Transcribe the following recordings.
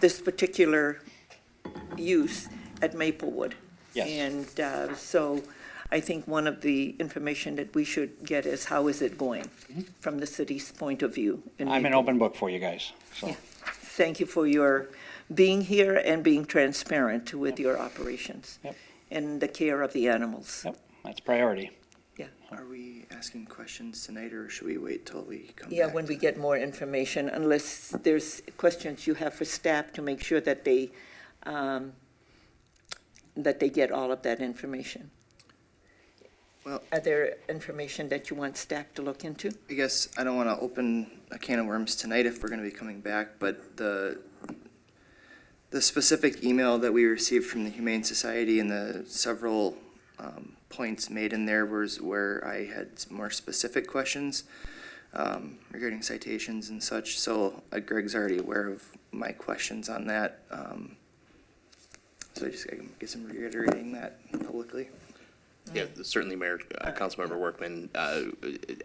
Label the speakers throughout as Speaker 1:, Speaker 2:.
Speaker 1: this particular use at Maplewood.
Speaker 2: Yes.
Speaker 1: And uh, so I think one of the information that we should get is how is it going from the city's point of view? in
Speaker 2: Mm-hmm. I'm an
Speaker 1: Maplewood.
Speaker 2: open book for you guys, so.
Speaker 1: Yeah. Thank you for your being here and being transparent with your operations
Speaker 2: Yep.
Speaker 1: and the care of the animals.
Speaker 2: Yep, that's priority.
Speaker 3: Are we asking questions tonight, or should we wait till we come back?
Speaker 1: Yeah, when
Speaker 3: to
Speaker 1: we get more information, unless there's questions you have for staff to make sure that they, um, that they get all of that information.
Speaker 3: Well-
Speaker 1: Are there information that you want staff to look into?
Speaker 3: I guess I don't want to open a can of worms tonight if we're going to be coming back, but the, the specific email that we received from the Humane Society and the several um, points made in there was where I had some more specific questions um, regarding citations and such, so uh, Greg's already aware of my questions on that. um, So I just, I guess I'm reiterating that publicly.
Speaker 4: Yeah, certainly, Mayor, uh, Councilmember Workman, uh,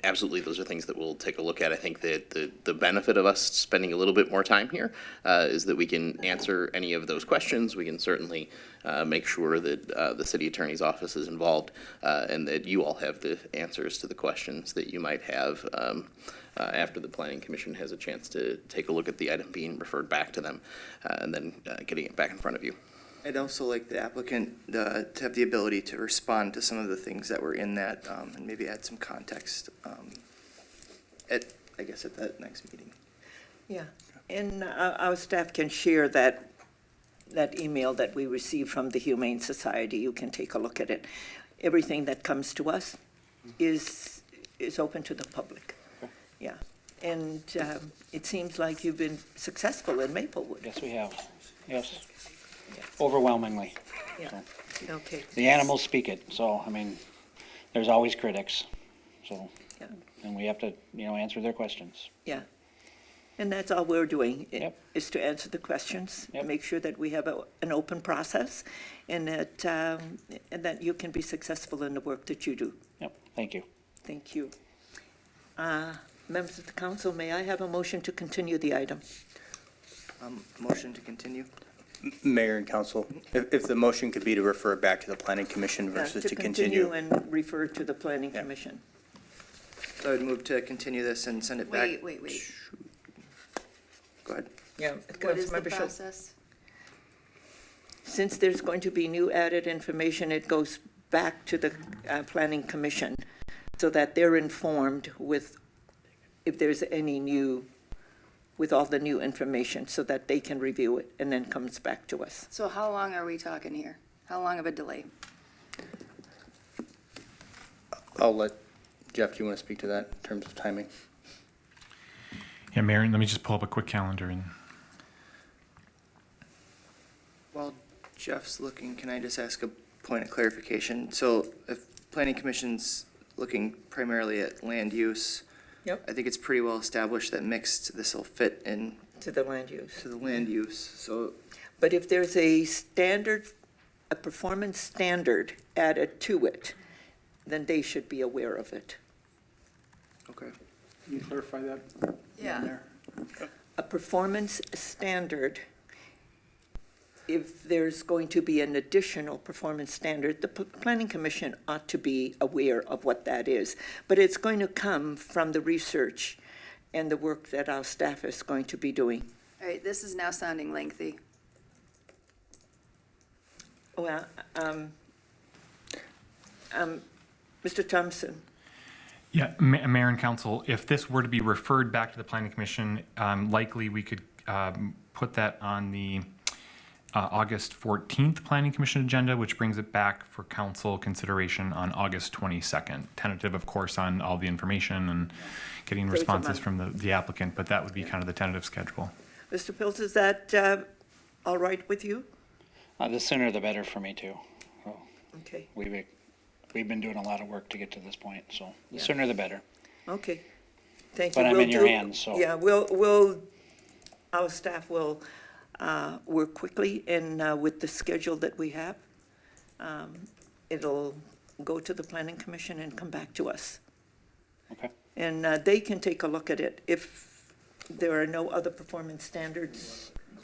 Speaker 4: absolutely, those are things that we'll take a look at. I think that the, the benefit of us spending a little bit more time here uh, is that we can answer any of those questions. We can certainly uh, make sure that uh, the city attorney's office is involved uh, and that you all have the answers to the questions that you might have um, uh, after the planning commission has a chance to take a look at the item being referred back to them uh, and then uh, getting it back in front of you.
Speaker 3: I'd also like the applicant uh, to have the ability to respond to some of the things that were in that, um, and maybe add some context um, at, I guess, at that next meeting.
Speaker 1: Yeah, and uh, our staff can share that, that email that we received from the Humane Society. You can take a look at it. Everything that comes to us is, is open to the public. Yeah, and um, it seems like you've been successful in Maplewood.
Speaker 2: Yes, we have. Yes, overwhelmingly.
Speaker 1: Yeah, okay.
Speaker 2: The animals speak it, so, I mean, there's always critics, so,
Speaker 1: Yeah.
Speaker 2: and we have to, you know, answer their questions.
Speaker 1: Yeah. And that's all we're doing, i-
Speaker 2: Yep.
Speaker 1: is to answer the questions,
Speaker 2: Yep.
Speaker 1: make sure that we have a- an open process, and that, um, and that you can be successful in the work that you do.
Speaker 2: Yep, thank you.
Speaker 1: Thank you. Uh, Members of the council, may I have a motion to continue the item?
Speaker 3: Um, Motion to continue?
Speaker 5: Mayor and council, if, if the motion could be to refer back to the planning commission
Speaker 1: Yeah,
Speaker 5: versus to continue.
Speaker 1: and refer to the planning
Speaker 5: Yeah.
Speaker 1: commission.
Speaker 3: So I would move to continue this and send it back.
Speaker 6: Wait, wait, wait.
Speaker 3: Go ahead.
Speaker 1: Yeah.
Speaker 6: What is the
Speaker 1: Councilmember Schultz.
Speaker 6: process?
Speaker 1: Since there's going to be new added information, it goes back to the uh, planning commission so that they're informed with, if there's any new, with all the new information, so that they can review it and then comes back to us.
Speaker 6: So how long are we talking here? How long of a delay?
Speaker 5: I'll let, Jeff, do you want to speak to that in terms of timing?
Speaker 7: Yeah, Marion, let me just pull up a quick calendar and
Speaker 3: While Jeff's looking, can I just ask a point of clarification? So if planning commission's looking primarily at land use.
Speaker 1: Yep.
Speaker 3: I think it's pretty well established that mixed, this'll fit in
Speaker 1: To the land use.
Speaker 3: to the land
Speaker 6: Mm-hmm.
Speaker 3: use, so
Speaker 1: But if there's a standard, a performance standard added to it, then they should be aware of it.
Speaker 3: Okay.
Speaker 8: Can you clarify that?
Speaker 6: Yeah.
Speaker 1: a performance standard, if there's going to be an additional performance standard, the P- planning commission ought to be aware of what that is. But it's going to come from the research and the work that our staff is going to be doing.
Speaker 6: All right, this is now sounding lengthy.
Speaker 1: Well, um, um, Mr. Thompson,
Speaker 7: Yeah, Ma- Mayor and Council, if this were to be referred back to the Planning Commission, um, likely we could um, put that on the uh, August 14th Planning Commission agenda, which brings it back for council consideration on August 22nd. Tentative, of course, on all the information and getting
Speaker 1: it's a
Speaker 7: responses
Speaker 1: month.
Speaker 7: from the the applicant, but that would be kind of the tentative schedule.
Speaker 1: Mr. Pills, is that uh, all right with you?
Speaker 2: Uh, The sooner the better for me, too. So,
Speaker 1: Okay,
Speaker 2: We've, we've been doing a lot of work to get to this point, so the
Speaker 1: Yeah.
Speaker 2: sooner the better.
Speaker 1: okay. Thank you.
Speaker 2: But I'm
Speaker 1: We'll
Speaker 2: in your
Speaker 1: do-
Speaker 2: hands, so-
Speaker 1: Yeah, we'll, we'll, our staff will uh, work quickly and uh, with the schedule that we have. um, It'll go to the planning commission and come back to us.
Speaker 2: Okay,
Speaker 1: And uh, they can take a look at it. If there are no other performance standards